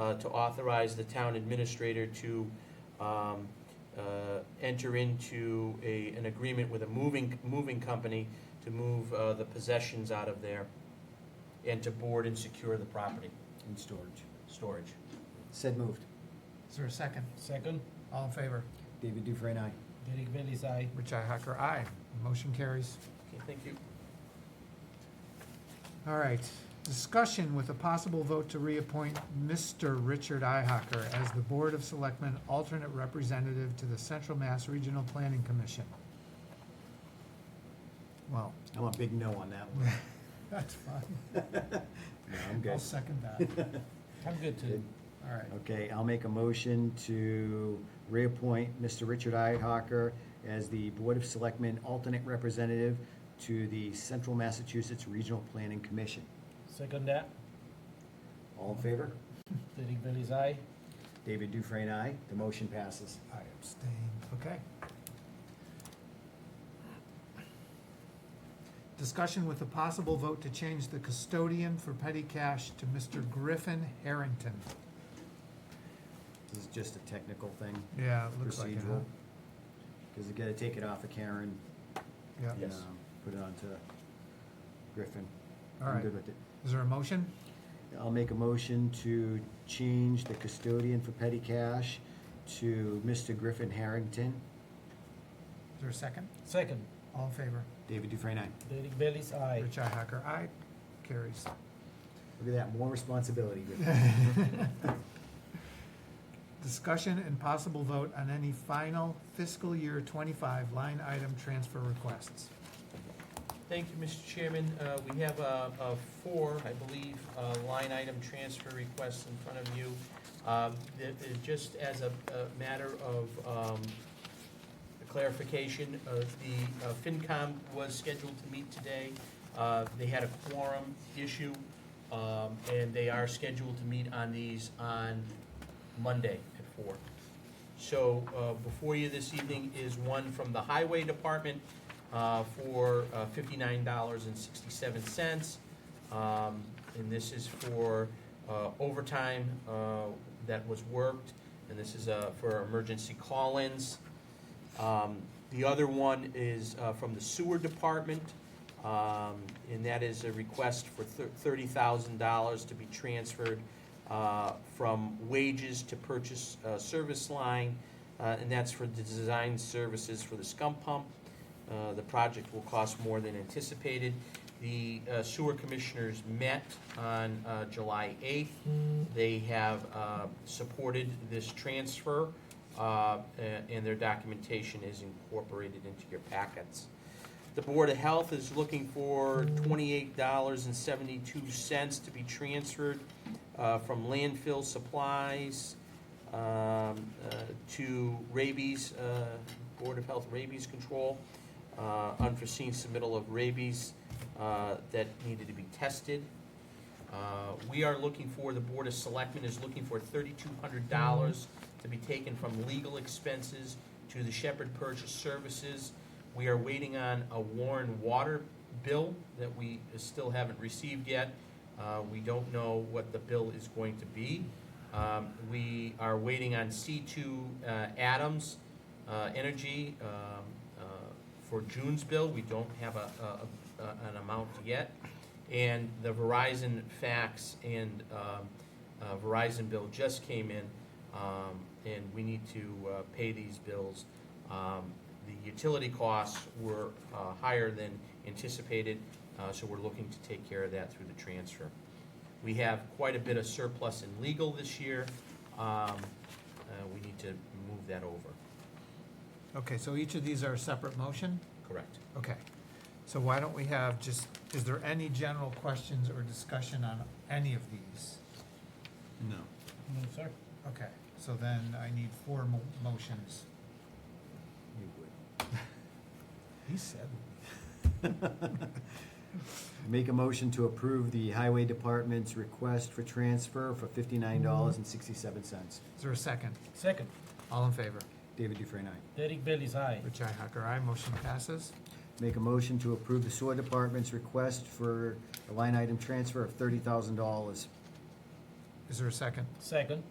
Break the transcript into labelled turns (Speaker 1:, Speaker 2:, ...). Speaker 1: uh, to authorize the town administrator to um, uh, enter into a, an agreement with a moving, moving company to move uh, the possessions out of there and to board and secure the property,
Speaker 2: and storage.
Speaker 1: storage.
Speaker 2: Said moved.
Speaker 3: Is there a second?
Speaker 4: Second,
Speaker 3: All in favor?
Speaker 2: David Dufresne, aye.
Speaker 4: Derek Bailey's aye.
Speaker 3: Richi Hacker, aye. Motion carries.
Speaker 1: Okay, thank you.
Speaker 3: All right. Discussion with a possible vote to reappoint Mr. Richard Ihacker as the Board of Selectmen alternate representative to the Central Mass Regional Planning Commission. Well,
Speaker 2: I'm a big no on that one.
Speaker 3: that's fine.
Speaker 2: No, I'm
Speaker 3: I'll
Speaker 2: good.
Speaker 3: second that.
Speaker 4: I'm good too.
Speaker 3: All right.
Speaker 2: Okay, I'll make a motion to reappoint Mr. Richard Ihawker as the Board of Selectmen alternate representative to the Central Massachusetts Regional Planning Commission.
Speaker 4: Second that,
Speaker 2: All in favor?
Speaker 4: Derek Bailey's aye.
Speaker 2: David Dufresne, aye. The motion passes.
Speaker 3: I abstain. Okay. Discussion with a possible vote to change the custodian for petty cash to Mr. Griffin Harrington.
Speaker 2: This is just a technical thing,
Speaker 3: Yeah, it looks like it, huh?
Speaker 2: procedural. Because you gotta take it off of Karen.
Speaker 3: Yeah.
Speaker 2: and,
Speaker 1: Yes.
Speaker 2: um, Put it onto Griffin.
Speaker 3: All
Speaker 2: I'm
Speaker 3: right.
Speaker 2: good with it.
Speaker 3: Is there a motion?
Speaker 2: I'll make a motion to change the custodian for petty cash to Mr. Griffin Harrington.
Speaker 3: Is there a second?
Speaker 4: Second,
Speaker 3: All in favor?
Speaker 2: David Dufresne, aye.
Speaker 4: Derek Bailey's aye.
Speaker 3: Richi Hacker, aye. Carries.
Speaker 2: Look at that, more responsibility. Griffin.
Speaker 3: Discussion and possible vote on any final fiscal year twenty-five line item transfer requests.
Speaker 1: Thank you, Mr. Chairman. Uh, We have uh, uh, four, I believe, uh, line item transfer requests in front of you. Um, that- that Just as a a matter of um, clarification, uh, the uh, FinCom was scheduled to meet today. Uh, They had a quorum issue, um, and they are scheduled to meet on these on Monday at four. So uh, before you this evening is one from the Highway Department uh, for uh, $59.67. Um, And this is for uh, overtime uh, that was worked, and this is uh, for emergency call-ins. Um, The other one is uh, from the Sewer Department, um, and that is a request for thir- $30,000 to be transferred uh, from wages to purchase uh, service line, uh, and that's for the design services for the scum pump. Uh, The project will cost more than anticipated. The uh, sewer commissioners met on uh, July 8th. They have uh, supported this transfer, uh, a- and their documentation is incorporated into your packets. The Board of Health is looking for $28.72 to be transferred uh, from landfill supplies um, uh, to rabies, uh, Board of Health rabies control, uh, unforeseen submittal of rabies uh, that needed to be tested. Uh, We are looking for, the Board of Selectmen is looking for $3,200 to be taken from legal expenses to the Shepherd Purchase Services. We are waiting on a Warren Water bill that we still haven't received yet. Uh, We don't know what the bill is going to be. Um, We are waiting on C2 uh, Adams uh, Energy um, uh, for June's bill. We don't have a- a- a- an amount yet. And the Verizon fax and um, uh, Verizon bill just came in, um, and we need to uh, pay these bills. Um, The utility costs were uh, higher than anticipated, uh, so we're looking to take care of that through the transfer. We have quite a bit of surplus in legal this year. Um, uh, We need to move that over,
Speaker 3: Okay, so each of these are a separate motion?
Speaker 1: correct?
Speaker 3: Okay. So why don't we have just, is there any general questions or discussion on any of these?
Speaker 2: No.
Speaker 4: No, sir.
Speaker 3: Okay, so then I need four mo- motions.
Speaker 2: You would.
Speaker 3: He said.
Speaker 2: Make a motion to approve the Highway Department's request for transfer for fifty-nine dollars and sixty-seven cents.
Speaker 3: Is there a second?
Speaker 4: Second,
Speaker 3: All in favor?
Speaker 2: David Dufresne, aye.
Speaker 4: Derek Bailey's aye.
Speaker 3: Richi Hacker, aye. Motion passes.
Speaker 2: Make a motion to approve the Sewer Department's request for a line item transfer of thirty thousand dollars.
Speaker 5: Is there a second?
Speaker 3: Second.